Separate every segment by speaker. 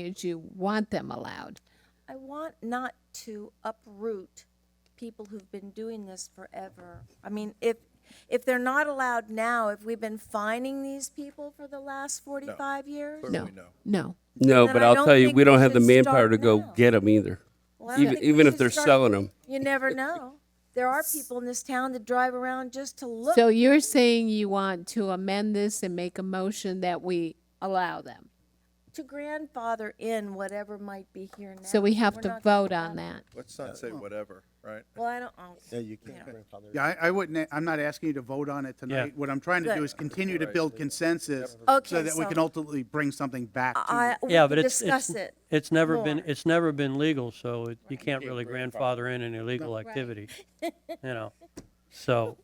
Speaker 1: is you want them allowed.
Speaker 2: I want not to uproot people who've been doing this forever. I mean, if, if they're not allowed now, if we've been fining these people for the last 45 years?
Speaker 1: No, no.
Speaker 3: No,
Speaker 2: Then
Speaker 3: but
Speaker 2: I
Speaker 3: I'll
Speaker 2: don't
Speaker 3: tell you,
Speaker 2: think
Speaker 3: we don't
Speaker 2: we
Speaker 3: have the
Speaker 2: should
Speaker 3: manpower
Speaker 2: start
Speaker 3: to go
Speaker 2: now.
Speaker 3: get them either.
Speaker 2: Well, I don't
Speaker 3: Even,
Speaker 2: think we
Speaker 3: even if
Speaker 2: should
Speaker 3: they're
Speaker 2: start-
Speaker 3: selling them.
Speaker 2: You never know. There are people in this town that drive around just to look.
Speaker 1: So you're saying you want to amend this and make a motion that we allow them?
Speaker 2: to grandfather in whatever might be here now.
Speaker 1: So we have
Speaker 2: We're
Speaker 1: to
Speaker 2: not gonna
Speaker 1: vote on
Speaker 2: allow-
Speaker 1: that.
Speaker 4: Let's not say whatever, right?
Speaker 2: Well, I don't, oh,
Speaker 5: Yeah, you can't
Speaker 2: Yeah.
Speaker 5: grandfather.
Speaker 6: Yeah, I, I wouldn't, I'm not asking you to vote on it tonight. What I'm trying to do is continue to build consensus
Speaker 2: Okay,
Speaker 6: so that we
Speaker 2: so-
Speaker 6: can ultimately bring something back to
Speaker 2: I, we
Speaker 7: Yeah,
Speaker 2: can
Speaker 7: but it's, it's,
Speaker 2: discuss it.
Speaker 7: it's never been,
Speaker 2: more.
Speaker 7: it's never been legal, so it- you can't really grandfather in an illegal activity, you know? So,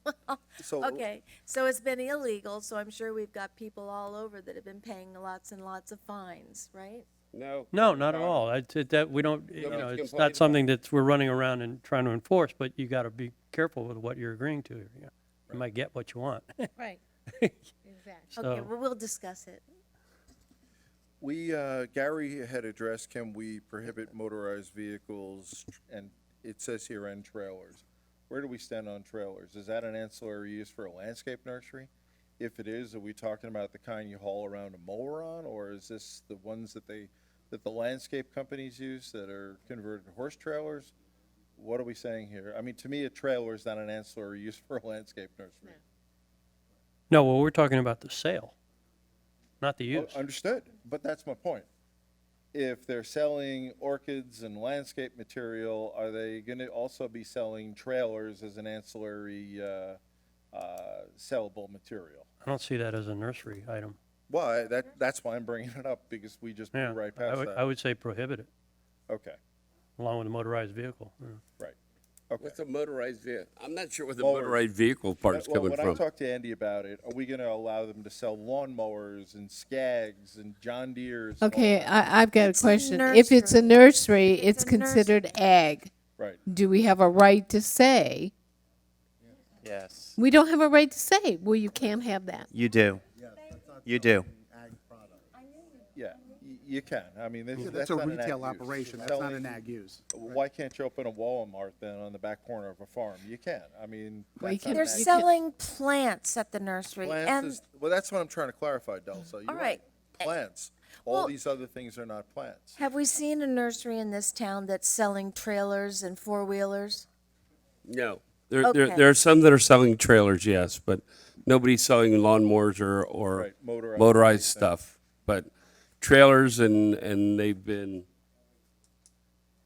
Speaker 4: So
Speaker 2: Okay, so it's been illegal, so I'm sure we've got people all over that have been paying lots and lots of fines, right?
Speaker 3: No.
Speaker 7: no, not at all. It's, it- that, we don't, you
Speaker 3: but
Speaker 7: know,
Speaker 3: it's
Speaker 7: it's
Speaker 3: complained
Speaker 7: not
Speaker 3: about.
Speaker 7: something that we're running around and trying to enforce, but you gotta be careful with what you're agreeing to. You know. You might get what you want,
Speaker 1: Right.
Speaker 2: Okay,
Speaker 7: so.
Speaker 2: well, we'll discuss it.
Speaker 4: we, uh, Gary had addressed, can we prohibit motorized vehicles and it says here and trailers? Where do we stand on trailers? Is that an ancillary use for a landscape nursery? If it is, are we talking about the kind you haul around a mower on or is this the ones that they, that the landscape companies use that are converted to horse trailers? What are we saying here? I mean, to me, a trailer is not an ancillary use for a landscape nursery.
Speaker 7: No, well, we're talking about the sale, not the
Speaker 4: Oh,
Speaker 7: use.
Speaker 4: Understood, but that's my point. If they're selling orchids and landscape material, are they gonna also be selling trailers as an ancillary, uh, uh, sellable material?
Speaker 7: I don't see that as a nursery item.
Speaker 4: Why, that, that's why I'm bringing it up, because we just
Speaker 7: Yeah,
Speaker 4: moved right
Speaker 7: I
Speaker 4: past
Speaker 7: would, I
Speaker 4: that.
Speaker 7: would say prohibit it,
Speaker 4: Okay,
Speaker 7: along with a motorized vehicle. yeah.
Speaker 4: right, okay.
Speaker 3: a motorized vehicle? I'm not sure where the
Speaker 4: Motor-
Speaker 3: motorized vehicle part's
Speaker 4: Well,
Speaker 3: coming
Speaker 4: When I
Speaker 3: from.
Speaker 4: talked to Andy about it, are we gonna allow them to sell lawnmowers and Skags and John Deere's? and all
Speaker 1: Okay,
Speaker 4: that?
Speaker 1: I, I've got a
Speaker 2: It's a
Speaker 1: question. If it's a
Speaker 2: nursery.
Speaker 1: nursery, it's
Speaker 2: a nursery.
Speaker 1: considered ag.
Speaker 4: Right,
Speaker 1: Do we have a right to say?
Speaker 8: Yes.
Speaker 1: We don't have a right to say, well, you can't have that.
Speaker 8: You do. You do.
Speaker 4: yeah, y- you can, I mean, this-
Speaker 6: Yeah,
Speaker 4: that's
Speaker 6: That's a
Speaker 4: not an ag
Speaker 6: retail
Speaker 4: use.
Speaker 6: operation, that's not
Speaker 4: Selling-
Speaker 6: an ag use.
Speaker 4: Why can't you open a Walmart then on the back corner of a farm? You can. I mean,
Speaker 1: Well, you
Speaker 4: that's not
Speaker 1: can-
Speaker 2: They're
Speaker 4: an
Speaker 1: There's
Speaker 4: ag-
Speaker 2: selling plants at the nursery
Speaker 4: plants
Speaker 2: and,
Speaker 4: is- well, that's what I'm trying to clarify, Delsa. You're
Speaker 2: All
Speaker 4: right.
Speaker 2: right.
Speaker 4: Eh, Plants. All
Speaker 2: well-
Speaker 4: these other things are not plants.
Speaker 2: have we seen a nursery in this town that's selling trailers and four-wheelers?
Speaker 3: No. There, there,
Speaker 2: Okay.
Speaker 3: there are some that are selling trailers, yes, but nobody's selling lawnmowers or, or
Speaker 4: Right, motorized
Speaker 3: motorized
Speaker 4: things.
Speaker 3: stuff. But trailers and, and they've been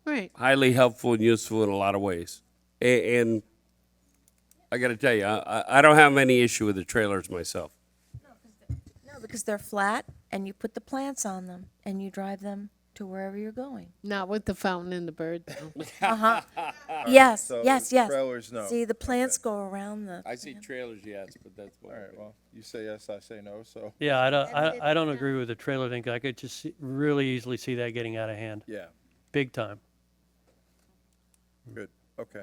Speaker 1: Right.
Speaker 3: highly helpful and useful in a lot of ways. And, and I gotta tell you, I, I- I don't have any issue with the trailers myself.
Speaker 2: No, because they're flat and you put the plants on them and you drive them to wherever you're going.
Speaker 1: Not with the fountain and the bird. though.
Speaker 2: Yes,
Speaker 4: so
Speaker 2: yes, yes.
Speaker 4: trailers, no.
Speaker 2: See, the plants go around the,
Speaker 3: I see trailers, yes, but that's.
Speaker 4: All right, well, you say yes, I say no, so,
Speaker 7: Yeah, I don't, I, I don't agree with the trailer thing. 'cause I could just see, really easily see that getting out of hand,
Speaker 4: yeah,
Speaker 7: big time.
Speaker 4: good, okay.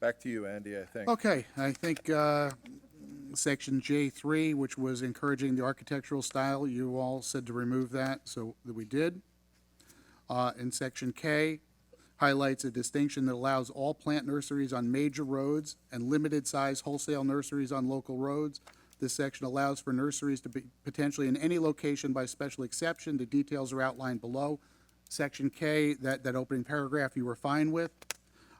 Speaker 4: Back to you, Andy, I think.
Speaker 6: Okay, I think uh, section J3, which was encouraging the architectural style, you all said to remove that, so that we did. Uh, And section K highlights a distinction that allows all plant nurseries on major roads and limited-size wholesale nurseries on local roads. This section allows for nurseries to be potentially in any location by special exception. The details are outlined below. Section K, that, that opening paragraph you were fine with.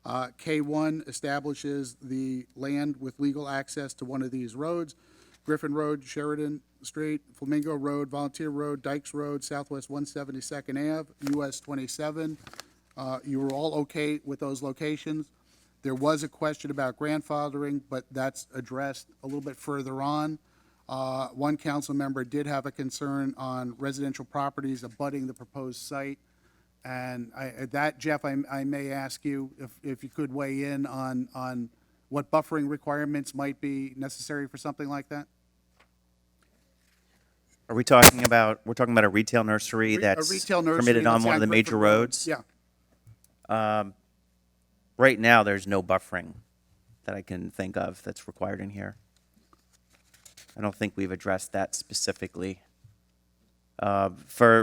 Speaker 6: Uh, K1 establishes the land with legal access to one of these roads, Griffin Road, Sheridan Street, Flamingo Road, Volunteer Road, Dykes Road, Southwest 172nd Ave, US 27. Uh, You were all okay with those locations. There was a question about grandfathering, but that's addressed a little bit further on. Uh, One council member did have a concern on residential properties abutting the proposed site. And I, at that, Jeff, I, I may ask you if, if you could weigh in on, on what buffering requirements might be necessary for something like that?
Speaker 8: Are we talking about, we're talking about a retail nursery
Speaker 6: Re- a
Speaker 8: that's
Speaker 6: retail nursery
Speaker 8: permitted on
Speaker 6: that's
Speaker 8: one of the
Speaker 6: on
Speaker 8: major
Speaker 6: Griffin
Speaker 8: roads?
Speaker 6: Yeah,
Speaker 8: Right now, there's no buffering that I can think of that's required in here. I don't think we've addressed that specifically. Uh, For,